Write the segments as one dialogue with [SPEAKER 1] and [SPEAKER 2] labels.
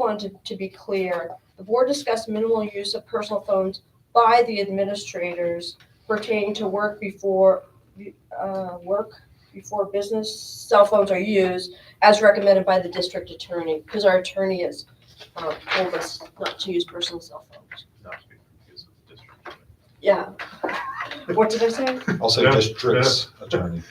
[SPEAKER 1] wanted to be clear, the board discussed minimal use of personal phones by the administrators pertaining to work before, uh, work before business cell phones are used as recommended by the district attorney, because our attorney has uh, told us not to use personal cell phones.
[SPEAKER 2] not to be confused with the district.
[SPEAKER 1] Yeah. What did I say?
[SPEAKER 3] I'll say
[SPEAKER 2] Yeah,
[SPEAKER 3] district's attorney.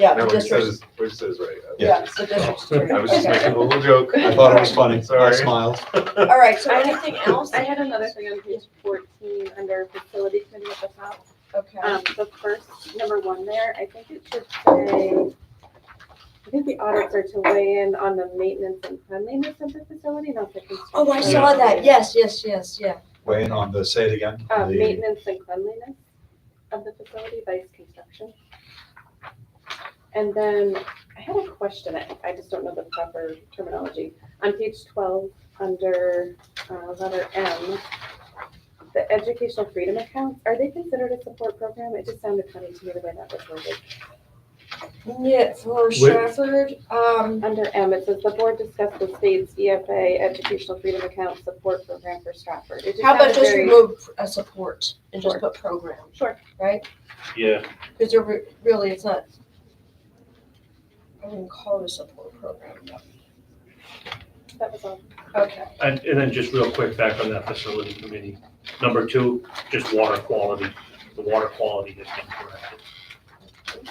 [SPEAKER 1] Yeah, the
[SPEAKER 2] No, what he says,
[SPEAKER 1] district,
[SPEAKER 2] is- what he says, is right. I-
[SPEAKER 1] yeah, the district attorney.
[SPEAKER 2] Oh, I was just
[SPEAKER 1] Okay.
[SPEAKER 2] making a little joke.
[SPEAKER 3] I thought it was funny. I
[SPEAKER 2] Sorry.
[SPEAKER 3] smiled.
[SPEAKER 1] All right, so anything else?
[SPEAKER 4] I had another thing on page fourteen under facility committee at the top.
[SPEAKER 1] Okay.
[SPEAKER 4] Um, the first, number one there, I think it should say, I think the audits are to weigh in on the maintenance and cleanliness of the facility, not the construction.
[SPEAKER 1] Oh, I saw that. Yes, yes, yes, yeah.
[SPEAKER 3] Weigh in on the, say it again.
[SPEAKER 4] Uh,
[SPEAKER 3] the-
[SPEAKER 4] maintenance and cleanliness of the facility by its construction. And then I had a question, I, I just don't know the proper terminology. On page twelve, under, uh, letter M, the educational freedom accounts, are they considered a support program? It just sounded funny to me the way that was worded.
[SPEAKER 1] Yeah, for Stratford, um,
[SPEAKER 4] Under M, it says the board discussed the state's EFA educational freedom account support program for Stratford. It
[SPEAKER 1] how about
[SPEAKER 4] sounded
[SPEAKER 1] just
[SPEAKER 4] very-
[SPEAKER 1] remove a support and just put program?
[SPEAKER 4] Sure.
[SPEAKER 1] Right?
[SPEAKER 5] Yeah,
[SPEAKER 1] Because they're re- really, it's not, I wouldn't call it a support program.
[SPEAKER 4] That was all.
[SPEAKER 1] Okay,
[SPEAKER 5] and, and then just real quick back on that facility committee. Number two, just water quality. The water quality has been corrected.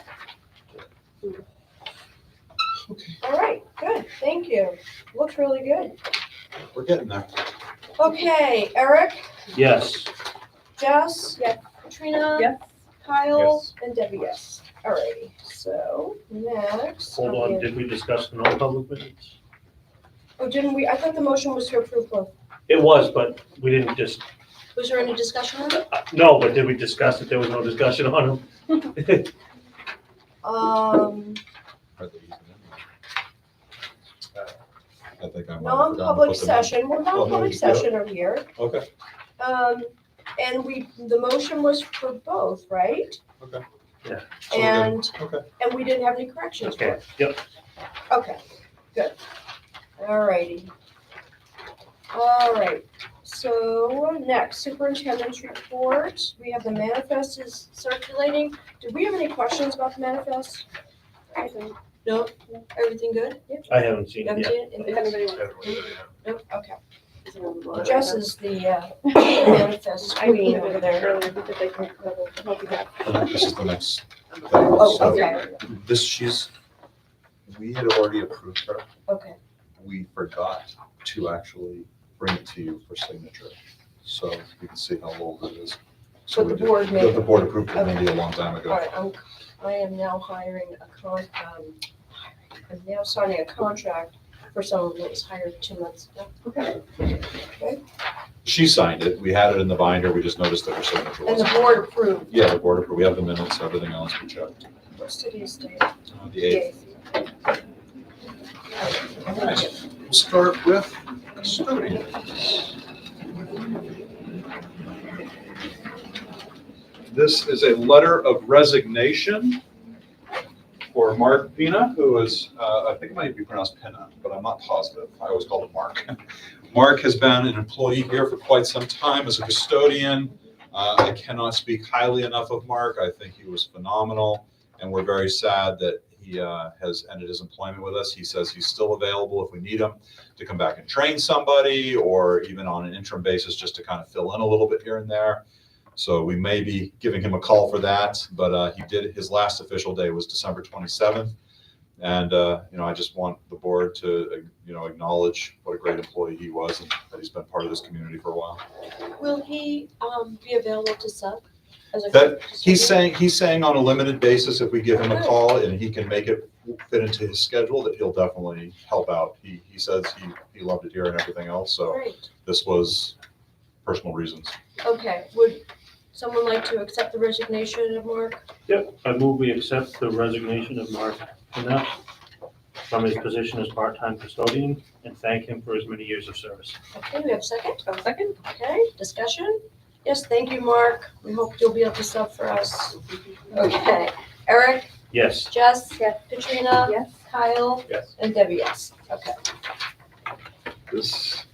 [SPEAKER 1] all right, good, thank you. Looks really good.
[SPEAKER 3] We're getting there.
[SPEAKER 1] Okay, Eric,
[SPEAKER 5] Yes,
[SPEAKER 1] Jess?
[SPEAKER 4] Yes.
[SPEAKER 1] Katrina?
[SPEAKER 4] Yes.
[SPEAKER 1] Kyle?
[SPEAKER 2] Yes.
[SPEAKER 1] And Debbie, yes. All righty, so next.
[SPEAKER 5] hold on, did we discuss the non-public minutes?
[SPEAKER 1] Oh, didn't we, I thought the motion was to approve both.
[SPEAKER 5] It was, but we didn't just,
[SPEAKER 1] Was there any discussion on it?
[SPEAKER 5] uh, no, but did we discuss it? There was no discussion on them.
[SPEAKER 1] Um,
[SPEAKER 3] I think I'm.
[SPEAKER 1] non-public session, we're
[SPEAKER 3] Oh, no,
[SPEAKER 1] non-public
[SPEAKER 3] you go.
[SPEAKER 1] session are here.
[SPEAKER 3] Okay.
[SPEAKER 1] Um, and we, the motion was for both, right?
[SPEAKER 3] Okay.
[SPEAKER 5] Yeah.
[SPEAKER 3] So we're good.
[SPEAKER 1] And,
[SPEAKER 3] Okay.
[SPEAKER 1] and we didn't have any corrections for
[SPEAKER 5] Okay,
[SPEAKER 1] it.
[SPEAKER 5] yep,
[SPEAKER 1] Okay, good. All righty. All right, so next, superintendent's report. We have the manifest is circulating. Did we have any questions about the manifest?
[SPEAKER 4] I don't-
[SPEAKER 1] No? Everything good?
[SPEAKER 5] I haven't
[SPEAKER 1] You
[SPEAKER 5] seen it
[SPEAKER 1] haven't
[SPEAKER 5] yet.
[SPEAKER 1] seen it?
[SPEAKER 4] If anybody wants.
[SPEAKER 2] Everyone, yeah.
[SPEAKER 1] Nope, okay.
[SPEAKER 4] to-
[SPEAKER 1] Jess is the uh, manifest
[SPEAKER 4] I mean,
[SPEAKER 1] queen over there.
[SPEAKER 4] earlier because I can't remember what we have.
[SPEAKER 3] The next- This is the next. thing.
[SPEAKER 1] Oh,
[SPEAKER 3] So
[SPEAKER 1] okay,
[SPEAKER 3] This, she's, we had already approved her.
[SPEAKER 1] okay.
[SPEAKER 3] We forgot to actually bring it to you for signature. So you can see how old it is. So
[SPEAKER 1] But the
[SPEAKER 3] we did-
[SPEAKER 1] board made,
[SPEAKER 3] The
[SPEAKER 1] all
[SPEAKER 3] board approved it maybe a long time ago.
[SPEAKER 1] right, I'm, I am now hiring a con, um, I'm now signing a contract for someone that was hired two months ago.
[SPEAKER 3] She signed it. We had it in the binder. We just noticed that her signature
[SPEAKER 1] And the
[SPEAKER 3] wasn't.
[SPEAKER 1] board approved,
[SPEAKER 3] Yeah, the board approved. We have the minutes, everything else we checked.
[SPEAKER 1] what's today's date?
[SPEAKER 3] Uh, The eighth.
[SPEAKER 1] Yay.
[SPEAKER 3] Nice. We'll start with Stody. This is a letter of resignation for Mark Pena, who is, uh, I think it might be pronounced Pena, but I'm not positive. I always call him Mark. Mark has been an employee here for quite some time as a custodian. Uh, I cannot speak highly enough of Mark. I think he was phenomenal and we're very sad that he uh, has ended his employment with us. He says he's still available if we need him to come back and train somebody, or even on an interim basis, just to kind of fill in a little bit here and there. So we may be giving him a call for that, but uh, he did, his last official day was December 27th. And, uh, you know, I just want the board to, uh, you know, acknowledge what a great employee he was and that he's been part of this community for a while.
[SPEAKER 1] Will he, um, be available to sub? as a
[SPEAKER 3] That-
[SPEAKER 1] custodian?
[SPEAKER 3] He's saying, he's saying on a limited basis, if we give him a call and he can make it fit into his schedule, that he'll definitely help out. He, he says he, he loved it here and everything else, so
[SPEAKER 1] Great.
[SPEAKER 3] this was personal reasons.
[SPEAKER 1] Okay, would someone like to accept the resignation of Mark?
[SPEAKER 5] Yep, I move we accept the resignation of Mark Knapp from his position as part-time custodian and thank him for his many years of service.
[SPEAKER 1] Okay, we have a second?
[SPEAKER 4] second.
[SPEAKER 1] Okay, discussion? Yes, thank you, Mark. We hope you'll be able to sub for us. Okay, Eric,
[SPEAKER 5] Yes,
[SPEAKER 1] Jess,
[SPEAKER 4] Yes.
[SPEAKER 1] Katrina,
[SPEAKER 4] Yes.
[SPEAKER 1] Kyle,
[SPEAKER 2] Yes.
[SPEAKER 1] and Debbie, yes. Okay.
[SPEAKER 3] This